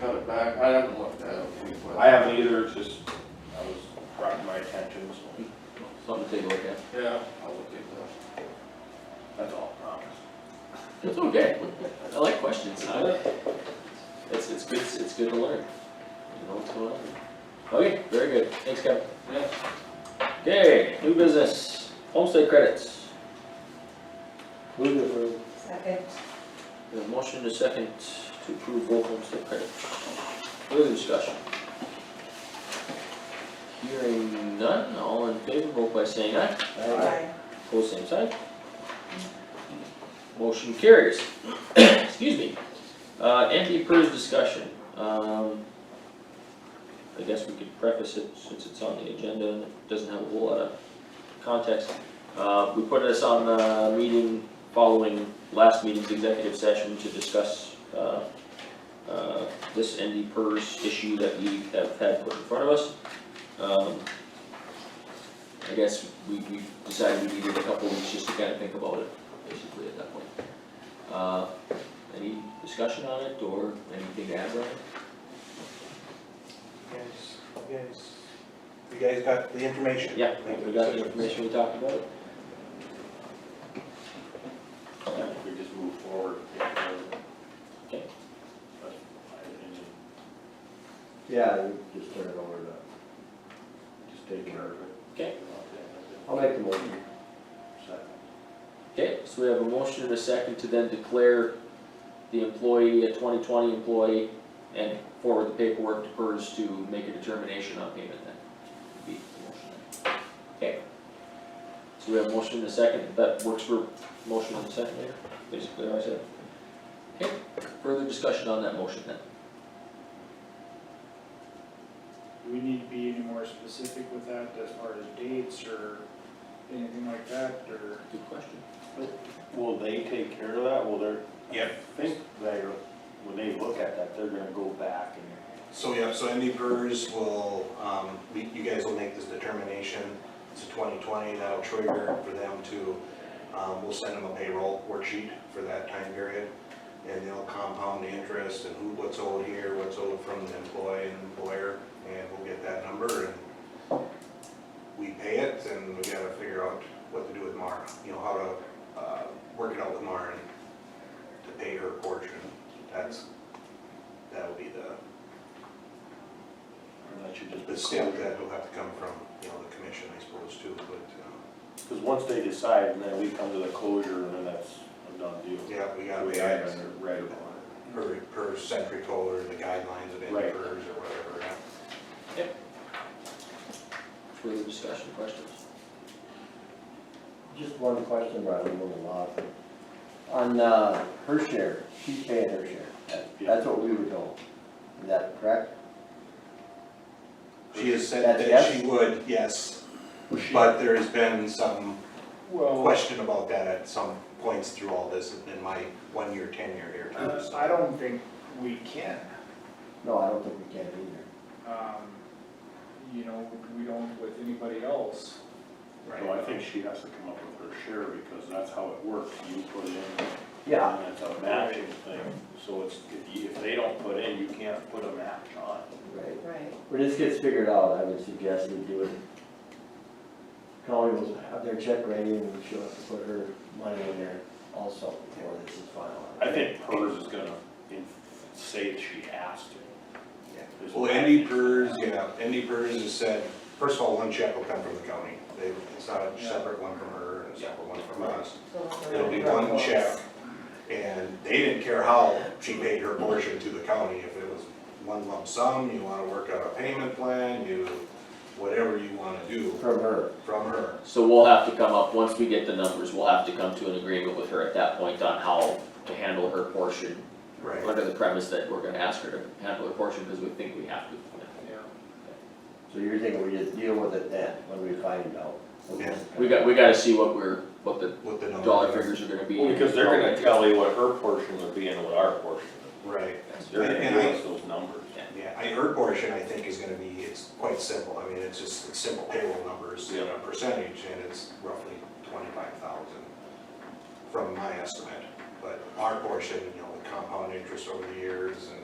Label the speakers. Speaker 1: cut it back? I haven't looked at it.
Speaker 2: I haven't either, it's just, I was brought to my attention, so
Speaker 3: Something to take a look at.
Speaker 1: Yeah, I'll look at
Speaker 2: that's all, I promise.
Speaker 3: It's okay. I like questions. I- It's, it's good, it's good to learn. You know what's going on. Okay, very good. Thanks, Kevin.
Speaker 1: that. Yeah.
Speaker 3: Okay, new business, homestead credits.
Speaker 4: Move to approve.
Speaker 5: Second.
Speaker 3: We have a motion to second to approve both homestead credits. Further discussion? Hearing none, all in favor, vote by saying aye.
Speaker 5: Aye.
Speaker 3: Pose same sign. Motion carries. Excuse me. Uh, empty purse discussion, um. I guess we could preface it since it's on the agenda and it doesn't have a whole lot of context. Uh, we put this on the meeting following last meeting's executive session to discuss, uh, uh, this ND purse issue that we have had put in front of us. Um, I guess we, we decided we needed a couple weeks just to kind of think about it, basically at that point. Uh, any discussion on it or anything to add, Brian?
Speaker 4: Yes, yes. You guys got the information?
Speaker 3: Yeah, we got the information we talked about.
Speaker 2: I think Um, we just move forward.
Speaker 3: Okay.
Speaker 6: Yeah, you just turn it over to, just take care of it.
Speaker 3: Okay.
Speaker 6: I'll make the motion. Second.
Speaker 3: Okay, so we have a motion and a second to then declare the employee a twenty twenty employee and forward the paperwork to PERS to make a determination on payment then. Be the motion then. Okay. So we have a motion and a second, that works for motion and second there, basically what I said. Okay, further discussion on that motion then.
Speaker 7: Do we need to be any more specific with that as far as dates or anything like that, or?
Speaker 3: Good question.
Speaker 2: Will they take care of that? Will they
Speaker 8: Yeah,
Speaker 2: I think they, when they look at that, they're gonna go back and
Speaker 8: so yeah, so ND Pers will, um, we- you guys will make this determination to twenty twenty, that'll trigger for them to, um, we'll send them a payroll worksheet for that time period. And they'll compound the interest and who, what's owed here, what's owed from the employee and employer, and we'll get that number and we pay it and we gotta figure out what to do with Mara, you know, how to, uh, work it out with Mara and to pay her portion. That's, that'll be the
Speaker 2: and that should just be.
Speaker 8: The stamp that will have to come from, you know, the commission, I suppose, too, but, um,
Speaker 2: Cause once they decide, and then we come to the closure, and then that's a done deal.
Speaker 8: um, yeah, we gotta
Speaker 2: We
Speaker 8: be
Speaker 2: add
Speaker 8: at
Speaker 2: under- right away.
Speaker 8: per, per century toll or the guidelines of any
Speaker 2: Right.
Speaker 8: PERS or whatever, yeah.
Speaker 3: Further discussion, questions?
Speaker 6: Just one question, Brian, I'm a little off. On, uh, her share, she's paying her share. That- That's what we were told. Is that correct?
Speaker 8: She has said
Speaker 6: That's
Speaker 8: that
Speaker 6: yes?
Speaker 8: she would, yes, but there has been some
Speaker 2: Oh.
Speaker 7: Well,
Speaker 8: question about that at some points through all this in my one-year tenure here, too,
Speaker 7: uh,
Speaker 8: so.
Speaker 7: I don't think we can,
Speaker 6: No, I don't think we can either.
Speaker 7: um, you know, we don't with anybody else.
Speaker 2: So I think she has to come up with her share, because that's how it works, you put in,
Speaker 6: Yeah,
Speaker 2: and it's a matching thing, so it's, if you, if they don't put in, you can't put a match on.
Speaker 6: right.
Speaker 5: Right.
Speaker 6: When this gets figured out, I would suggest we do it. Colleen will have their check ready and she'll have to put her money in there also before this is finalized.
Speaker 2: I think hers is gonna in- say that she has to.
Speaker 8: Yeah.
Speaker 2: There's
Speaker 8: Well, ND PERS, yeah, ND PERS has said, first of all, one check will come from the county, they, it's not a
Speaker 7: Yeah.
Speaker 8: separate one from her and a separate one from us.
Speaker 5: So-
Speaker 8: It'll be one check, and they didn't care how she paid her portion to the county, if it was one lump sum, you wanna work out a payment plan, you, whatever you wanna do
Speaker 6: From her.
Speaker 8: from her.
Speaker 3: So we'll have to come up, once we get the numbers, we'll have to come to an agreement with her at that point on how to handle her portion.
Speaker 8: Right.
Speaker 3: Under the premise that we're gonna ask her to handle her portion because we think we have to.
Speaker 7: Yeah.
Speaker 6: So you're thinking we just deal with it then, when we find out?
Speaker 8: Yeah.
Speaker 3: We got, we gotta see what we're, what the
Speaker 8: With the number.
Speaker 3: dollar figures are gonna be.
Speaker 2: Well, because they're gonna tell you what her portion would be and what our portion. would
Speaker 8: Right,
Speaker 2: be. They're gonna
Speaker 8: And
Speaker 2: give
Speaker 8: I-
Speaker 2: us those numbers.
Speaker 8: yeah, I, her portion, I think, is gonna be, it's quite simple, I mean, it's just it's simple payroll numbers, and a percentage, and it's roughly twenty-five thousand from my estimate, but our portion, you know, the compound interest over the years and